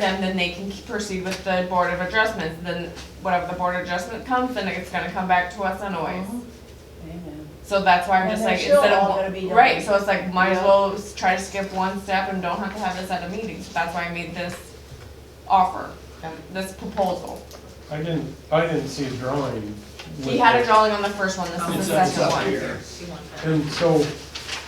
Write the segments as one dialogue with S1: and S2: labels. S1: them, then they can keep- proceed with the board of adjustments, then whatever the board of adjustment comes, then it's gonna come back to us anyways.
S2: Amen.
S1: So that's why I'm
S2: Uh-huh. And
S1: just
S2: they're
S1: like,
S2: still
S1: instead of,
S2: all gonna be
S1: one- right,
S2: done.
S1: so it's like, might as
S2: Yeah.
S1: well s- try to skip one step and don't have to have this at a meeting, So that's why I made this offer, um, this proposal.
S3: I didn't, I didn't see a drawing.
S1: He
S3: with
S1: had a
S3: it.
S1: drawing on the first one, this is
S4: It's
S1: the
S4: up- it's
S1: second
S4: up
S1: one.
S4: here.
S3: And so,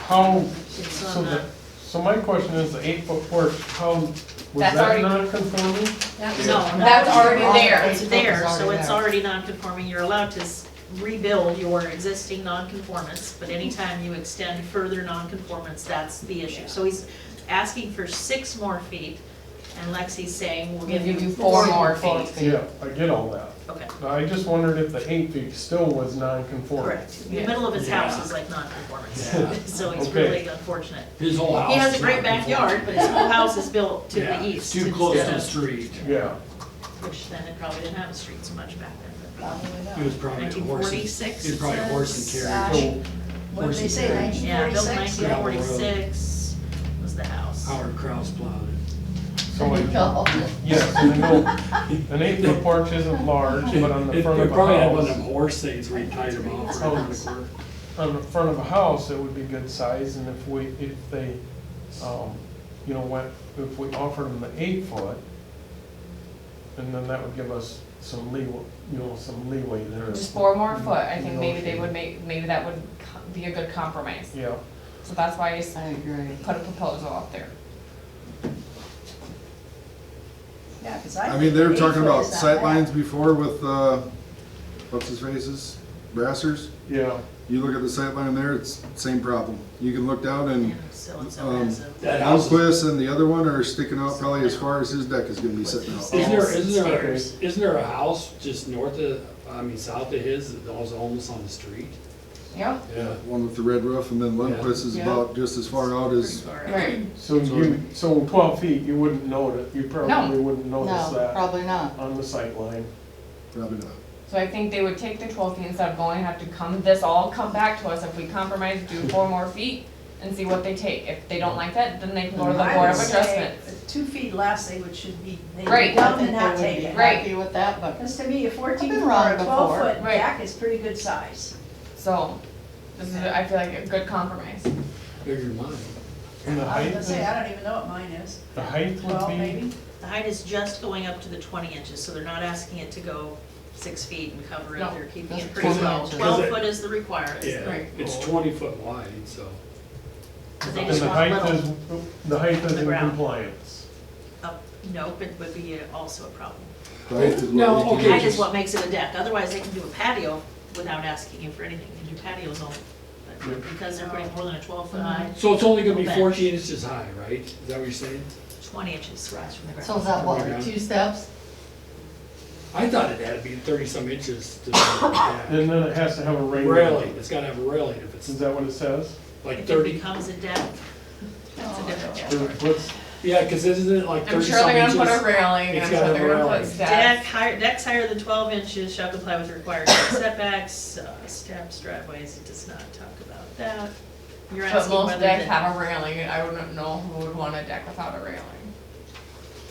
S3: how,
S4: It's
S3: so
S4: on
S3: the,
S4: the,
S3: so my question is, the eight foot porch, how, was
S1: That's
S3: that
S1: already-
S3: non-conforming?
S4: no.
S1: That's already there.
S4: It's there, so it's already non-conforming, you're allowed to s- rebuild your existing non-conformance, but anytime you extend further non-conformance, that's the issue. So he's asking for six more feet, and Lexi's saying, we'll give
S1: If you do
S4: you
S1: four more
S4: feet.
S1: feet.
S3: Yeah, I get all that.
S4: Okay,
S3: But I just wondered if the eight feet still was non-conforming.
S4: correct, the middle of his house is like non-conformance, so it's
S3: Okay.
S4: really unfortunate.
S5: His whole house.
S4: He has a
S5: is
S4: great
S5: not conforming.
S4: backyard, but his whole house is built to
S5: Yeah,
S4: the
S5: it's
S4: east.
S5: Too close to
S4: instead
S5: the
S4: of-
S5: street.
S3: Yeah,
S4: Which then it probably didn't have a street so much back then.
S2: Probably not.
S5: It was probably a horse. and-
S4: 1946
S5: It was probably a horse and
S2: it
S5: carriage.
S2: says.
S3: so,
S2: What did they say,
S4: but-
S2: nineteen
S4: Yeah, built
S2: forty-six?
S4: nineteen forty-six was the house.
S5: Howard Kraus plowed it.
S3: so, I- yes, and the middle, an eight foot porch isn't large, but on the
S5: It-
S3: front of
S5: It
S3: a
S5: probably had one of
S3: house,
S5: them horse things where you tied them off right around the corner.
S3: on the front of a house, it would be good size, and if we, if they, um, you know, went, if we offered them the eight foot, and then that would give us some leeway, you know, some leeway there.
S1: Just four more
S2: Mm-hmm.
S1: foot, I think maybe they would make, maybe that would co- be a good compromise,
S3: Yeah,
S1: so that's why I s-
S2: I agree.
S1: put a proposal out there.
S2: Yeah, 'cause
S6: I mean, they were
S2: think
S6: talking about
S2: eight foot is not bad.
S6: sightlines before with, uh, what's his faces, Brassers.
S3: yeah.
S6: You look at the sightline there, it's same problem. You can look down
S4: And
S6: and
S4: so-and-so has a.
S5: That house is-
S6: Elquist and the other one are sticking out probably as far as his deck is gonna be sitting out.
S5: Isn't there,
S4: Stairs.
S5: isn't there,
S4: Stairs.
S5: isn't there a house just north of, I mean, south of his that was almost on the street?
S1: Yeah,
S5: Yeah.
S6: One with the red roof and then Lundquist is
S1: Yeah.
S6: about just as far out as,
S1: right.
S3: So you, so twelve feet, you wouldn't notice, you probably wouldn't notice
S7: No,
S3: that
S7: probably not.
S3: on the sight line.
S6: probably not.
S1: So I think they would take the twelve feet instead of going, have to come, this all come back to us if we compromise, do four more feet and see what they take. If they don't like that, then they can go to the
S2: I
S1: board of
S2: would say
S1: adjustments.
S2: Two feet less, they would, should be, they
S1: Right.
S2: would dump
S7: I
S2: and
S7: think
S2: not
S7: they would
S2: take
S7: be
S2: it.
S1: Right.
S7: Happy with that, but
S2: Because to me, a fourteen
S7: I've
S2: foot
S7: been
S2: or
S7: wrong
S2: a twelve
S7: before.
S2: foot
S1: Right.
S2: deck is pretty good size.
S1: So, this is, I feel like a good compromise.
S5: Bigger than mine.
S3: And the
S2: I was
S3: height,
S2: gonna say, I don't even know what mine is,
S3: the height
S2: twelve
S3: would be,
S2: maybe?
S4: The height is just going up to the twenty inches, so they're not asking it to go six feet and cover it,
S1: No,
S4: they're keeping
S7: that's
S4: it pretty
S7: 20
S4: low.
S7: inches.
S4: Twelve
S5: Because it-
S4: foot is the requirement,
S5: Yeah,
S1: Right.
S5: it's twenty foot wide, so.
S4: but they
S3: and
S4: just
S3: the
S4: want
S3: height
S4: little,
S3: is, the height is
S4: the
S3: in
S4: ground.
S3: compliance.
S4: up, nope, it would be also a problem.
S6: Height is what
S5: No,
S6: we can-
S5: okay.
S4: That is what makes it a deck, otherwise they can do a patio without asking you for anything, they can do patios only.
S3: Yeah.
S4: But because they're putting more than a twelve foot
S7: Mm-hmm.
S4: high,
S5: So it's only gonna be
S4: Okay.
S5: fourteen inches high, right? Is that what you're saying?
S4: twenty inches rise from the
S7: so
S4: ground.
S7: is that what,
S5: Yeah.
S7: two steps?
S5: I thought it had to be thirty some inches to. Yeah.
S3: And then it has to have a railing.
S5: Railing, it's gotta have a railing if
S3: Is
S5: it's
S3: that what it says?
S5: like
S4: If it
S5: thirty.
S4: becomes a deck, it's a
S1: Oh,
S4: different
S3: Or
S4: deck.
S3: What's,
S5: Yeah, cause isn't it like
S1: I'm
S5: thirty
S1: sure
S5: some
S1: they're gonna
S5: inches?
S1: put a railing,
S5: It's
S1: I'm
S5: gotta
S1: sure they're
S5: have
S1: gonna
S5: a
S1: put
S5: railing.
S4: Deck
S1: steps.
S4: higher, decks higher than twelve inches shall comply with required setbacks, uh, steps, driveways, it does not talk about that. You're
S1: But
S4: asking
S1: most
S4: whether
S1: decks
S4: the,
S1: have a railing, and I wouldn't know who would want a deck without a railing.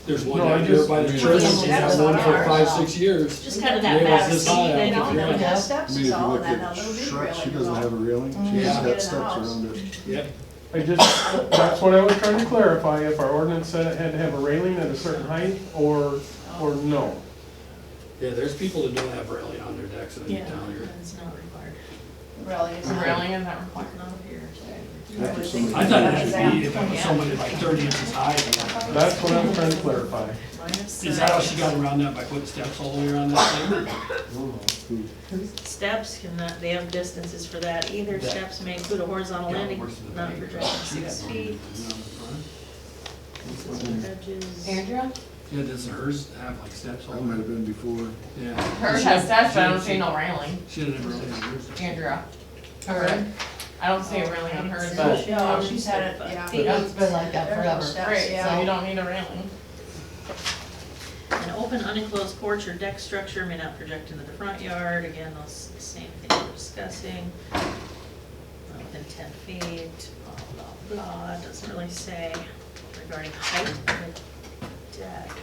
S5: There's one
S3: No, I
S5: out here
S3: just-
S5: by the
S6: Yeah,
S5: church,
S2: well,
S5: she's
S2: that's
S5: had one
S2: not
S5: for
S2: ours.
S5: five, six years.
S4: just kind of
S5: Yeah,
S4: that
S5: it's
S4: back
S5: this
S4: seat,
S5: high,
S4: they
S5: I
S4: don't
S5: think,
S4: have
S5: yeah.
S4: enough
S6: I
S2: steps
S6: mean, if
S2: is
S6: you
S2: all,
S6: look
S2: and that now
S6: at
S2: little big
S6: Shrek,
S2: railing
S6: she
S2: is
S6: doesn't
S2: all.
S6: have a railing,
S5: Yeah.
S6: she's just
S2: Get in
S6: got
S2: the
S6: steps
S2: house.
S6: around it.
S5: Yep,
S3: I just, that's what I was trying to clarify, if our ordinance said it had to have a railing at a certain height, or, or no.
S5: yeah, there's people that don't have railing on their decks in
S4: Yeah,
S5: town here.
S4: it's not required,
S2: Really, it's
S1: A
S2: not.
S1: railing is not required.
S4: not here.
S2: I would think
S5: I thought
S2: it's
S5: it
S2: that.
S5: should be if it was somebody like thirty inches high.
S3: That's what I'm trying to clarify.
S4: Line of
S5: Is that how she
S4: sight.
S5: got around that by putting steps all the way around that thing?
S4: Steps cannot, they have distances for that either,
S5: Yeah.
S4: steps may include a horizontal landing, not projecting six feet, consistent with edges.
S1: Andrea?
S5: Yeah, does hers have like steps all
S6: That
S5: the
S6: might
S5: way?
S6: have been before.
S5: Yeah.
S1: Hers
S5: She
S1: has
S5: had-
S1: steps,
S5: she
S1: but I
S5: had-
S1: don't see no railing.
S5: She didn't really have hers.
S1: Andrea?
S7: Her,
S1: I don't see a railing on hers,
S4: Cool.
S1: but.
S2: Yeah,
S1: um,
S2: she's had it, yeah.
S4: Feet.
S7: it's been like that
S2: There are
S7: forever.
S2: steps,
S1: Right, so
S2: yeah.
S1: you don't need a railing.
S4: An open unenclosed porch or deck structure may not project into the front yard, again, those same things we're discussing. Not Within ten feet, blah, blah, blah, doesn't really say regarding height of the deck.